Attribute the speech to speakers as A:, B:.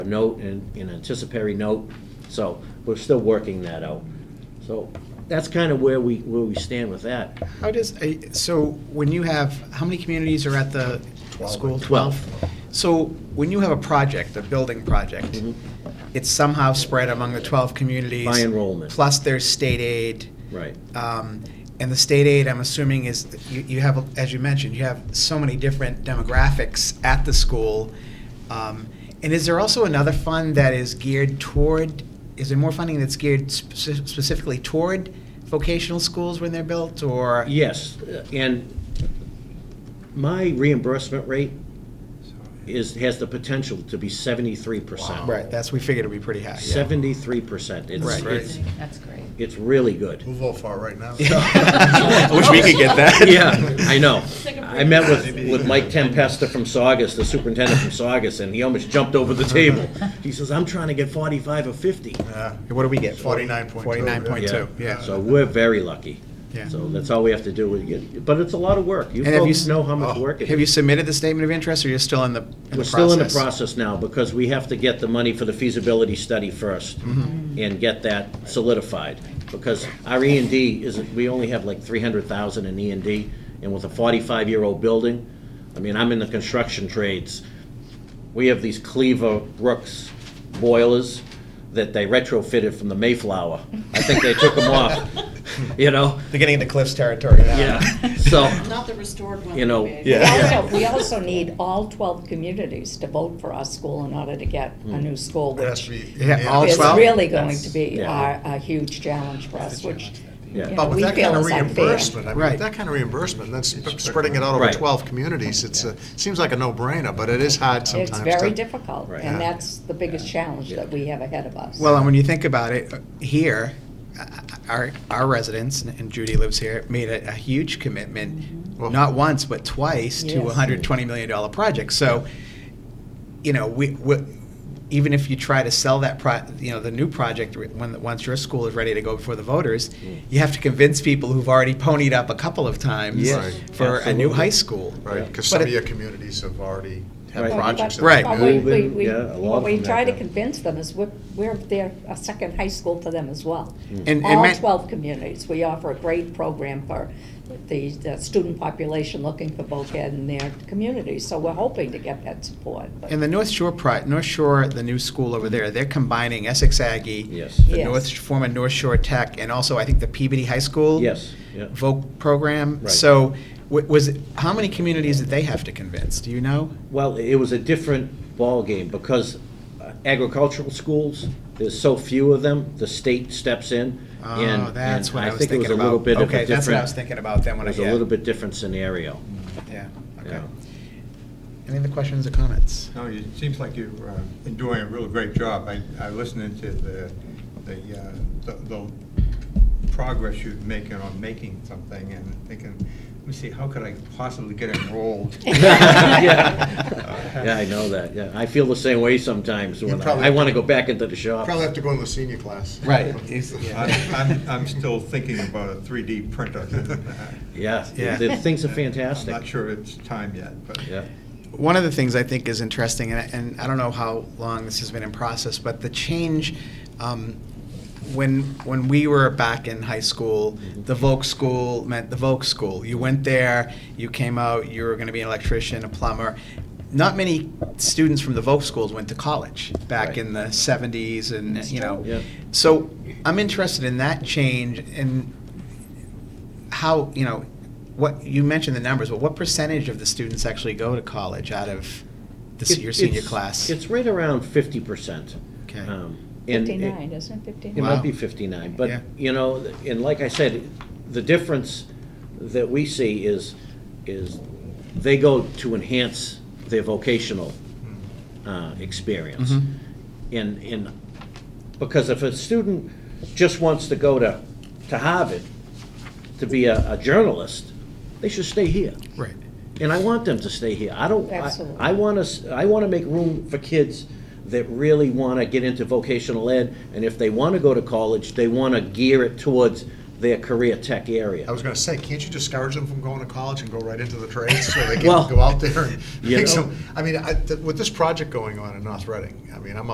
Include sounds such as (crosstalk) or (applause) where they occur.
A: a note and an anticipatory note, so we're still working that out. So that's kind of where we, where we stand with that.
B: How does, a- so when you have, how many communities are at the school?
A: Twelve.
B: So when you have a project, a building project,
A: Mhm.
B: it's somehow spread among the 12 communities.
A: By enrollment.
B: Plus there's state aid.
A: Right.
B: Um, And the state aid, I'm assuming, is, you you have, as you mentioned, you have so many different demographics at the school. Um, And is there also another fund that is geared toward, is there more funding that's geared speci- specifically toward vocational schools when they're built, or?
A: Yes, and my reimbursement rate is, has the potential to be seventy-three percent.
B: Right, that's, we figured it'd be pretty high. yeah.
A: Seventy-three percent. It's,
B: Right.
A: it's,
C: That's great.
A: it's really good.
D: Move all far right now.
B: (laughs) I (laughs) wish we could get
A: (laughs)
B: that.
A: Yeah, I know. I met with, with Mike Tempesta from Saugus, the superintendent from Saugus, and he almost jumped over the table. He says, I'm trying to get forty-five or fifty.
D: Yeah.
B: What do we get?
D: 49.2,
B: Forty-nine point
A: Yeah.
B: two, yeah.
A: So we're very lucky.
B: Yeah.
A: So that's all we have to do, is get- but it's a lot of work. You
B: And have you
A: folks
B: s-
A: know how much
D: Oh,
A: work it
B: Have you
A: is.
B: submitted the statement of interest, or you're still in the, in the process?
A: We're still in the process now, because we have to get the money for the feasibility study first
B: Mm-hmm.
A: and get that solidified, because our E and D isn't, we only have like three hundred thousand in E and D, and with a forty-five-year-old building, I mean, I'm in the construction trades. We have these Cleaver Brooks boilers that they retrofitted from the Mayflower. I think they took them off,
B: (laughs)
A: you know?
B: They're getting into Cliff's territory now. (laughs)
A: Yeah, so,
C: Not the restored one.
A: You know,
C: that we made.
B: Yeah.
E: We also, we also need all 12 communities to vote for our school in order to get a new school,
D: It has to
E: which
D: be
B: Yeah, all
D: unanimous.
E: is
B: 12?
E: really going to be
A: Yeah.
E: a, a huge challenge for us, which, you
A: Yeah.
E: know,
D: But with
E: we
D: that
E: feel
D: kind of
E: is unfair.
D: reimbursement, I mean,
B: Right.
D: with that kind of reimbursement, then sp- spreading it out over
A: Right.
D: 12 communities, it's, a- seems like a no-brainer, but it is hard sometimes.
E: It's very
D: to-
E: difficult,
A: Right.
E: and that's the biggest challenge that we have ahead of us.
B: Well, and when you think about it, uh, here, uh, our, our residents, and Judy lives here, made a, a huge commitment,
D: Well-
B: not once, but twice, to a
E: Yes.
B: hundred twenty million dollar project. So, you know, we, we, even if you try to sell that pro, you know, the new project, when, once your school is ready to go before the voters,
A: Mm.
B: you have to convince people who've already ponied up a couple of times
A: Yes.
D: Right.
B: for a new
A: Absolutely.
B: high school.
D: Right, because
B: But
D: some of
B: it-
D: your communities have already had
A: Right.
D: projects. that
B: Right.
D: they've
E: But we,
D: been-
E: we,
A: Moving,
E: we,
A: yeah, a lot
E: what
A: of
E: we
A: them
E: try to
A: have that.
E: convince them is we're, we're their, a second high school to them as well.
A: Mm.
B: And- and
E: All
B: ma-
E: 12 communities, we offer a great program for the, the student population looking for voc ed in their communities, so we're hoping to get that support. but-
B: And the North Shore, pri- North Shore, the new school over there, they're combining Essex Aggie,
A: Yes.
B: the
E: Yes.
B: North, former North Shore Tech, and also I think the Peabody High School.
A: yes, yeah.
B: Voc program.
A: Right.
B: So wa- was, it- how many communities did they have to convince? Do you know?
A: Well, it was a different ballgame because agricultural schools, there's so few of them, the state steps in. and-
B: Oh, that's
A: and
B: what I was
A: think it
B: thinking
A: was a
B: about.
A: little bit of a
B: Okay, that's what I
A: different-
B: was thinking about then
A: It
B: when I,
A: was a
B: yeah.
A: little bit different scenario.
B: (laughs) Yeah, okay.
A: yeah.
B: Any other questions or comments?
F: No, it seems like you've uh, been doing a real great job. I, I listened to the, the, uh, the the progress you're making on making something and thinking, let me see, how could I possibly get
A: (laughs)
F: enrolled?
A: Yeah, Yeah, I know that, yeah. I feel the same way sometimes when
D: probably-
A: I, I want to go back into the shop.
D: Probably have to go in the senior class. (laughs)
B: Right, it's- yeah.
F: I'm, I'm- I'm still thinking about a 3D printer.
A: (laughs) Yeah,
B: Yeah.
A: the the things are
F: I'm not
A: fantastic.
F: sure it's time yet, but.
A: Yeah,
B: One of the things I think is interesting, and I, and I don't know how long this has been in process, but the change, um, when, when we were back in high school, the Volk School meant the Volk School. You went there, you came out, you were gonna be an electrician, a plumber. Not many students from the Volk schools went to college back
A: Right.
B: in the seventies and, you know.
A: Yeah.
B: So I'm interested in that change and how, you know, what, you mentioned the numbers, but what percentage of the students actually go to college out of the se-
A: It-
B: your senior
A: it's-
B: class?
A: It's right around fifty percent. Um,
B: Okay.
E: 59, isn't it, 59?
A: It might be
B: Wow.
A: 59,
B: Yeah.
A: but, you know, and like I said, the difference that we see is, is they go to enhance their vocational uh, experience.
B: Mhm.
A: And, and, because if a student just wants to go to, to Harvard to be a a journalist, they should stay here.
B: Right.
A: And I want them to stay here. I don't, I-
E: Absolutely.
A: I want to, I want to make room for kids that really want to get into vocational ed, and if they want to go to college, they want to gear it towards their career tech
D: I
A: area.
D: was gonna say, can't you discourage them from going to college and go right into the trades so
A: (laughs)
D: they can
A: Well,
D: go out there and
A: you
D: make
A: know.
D: some? I mean, I, th- with this project going on in North Reading, I mean, I'm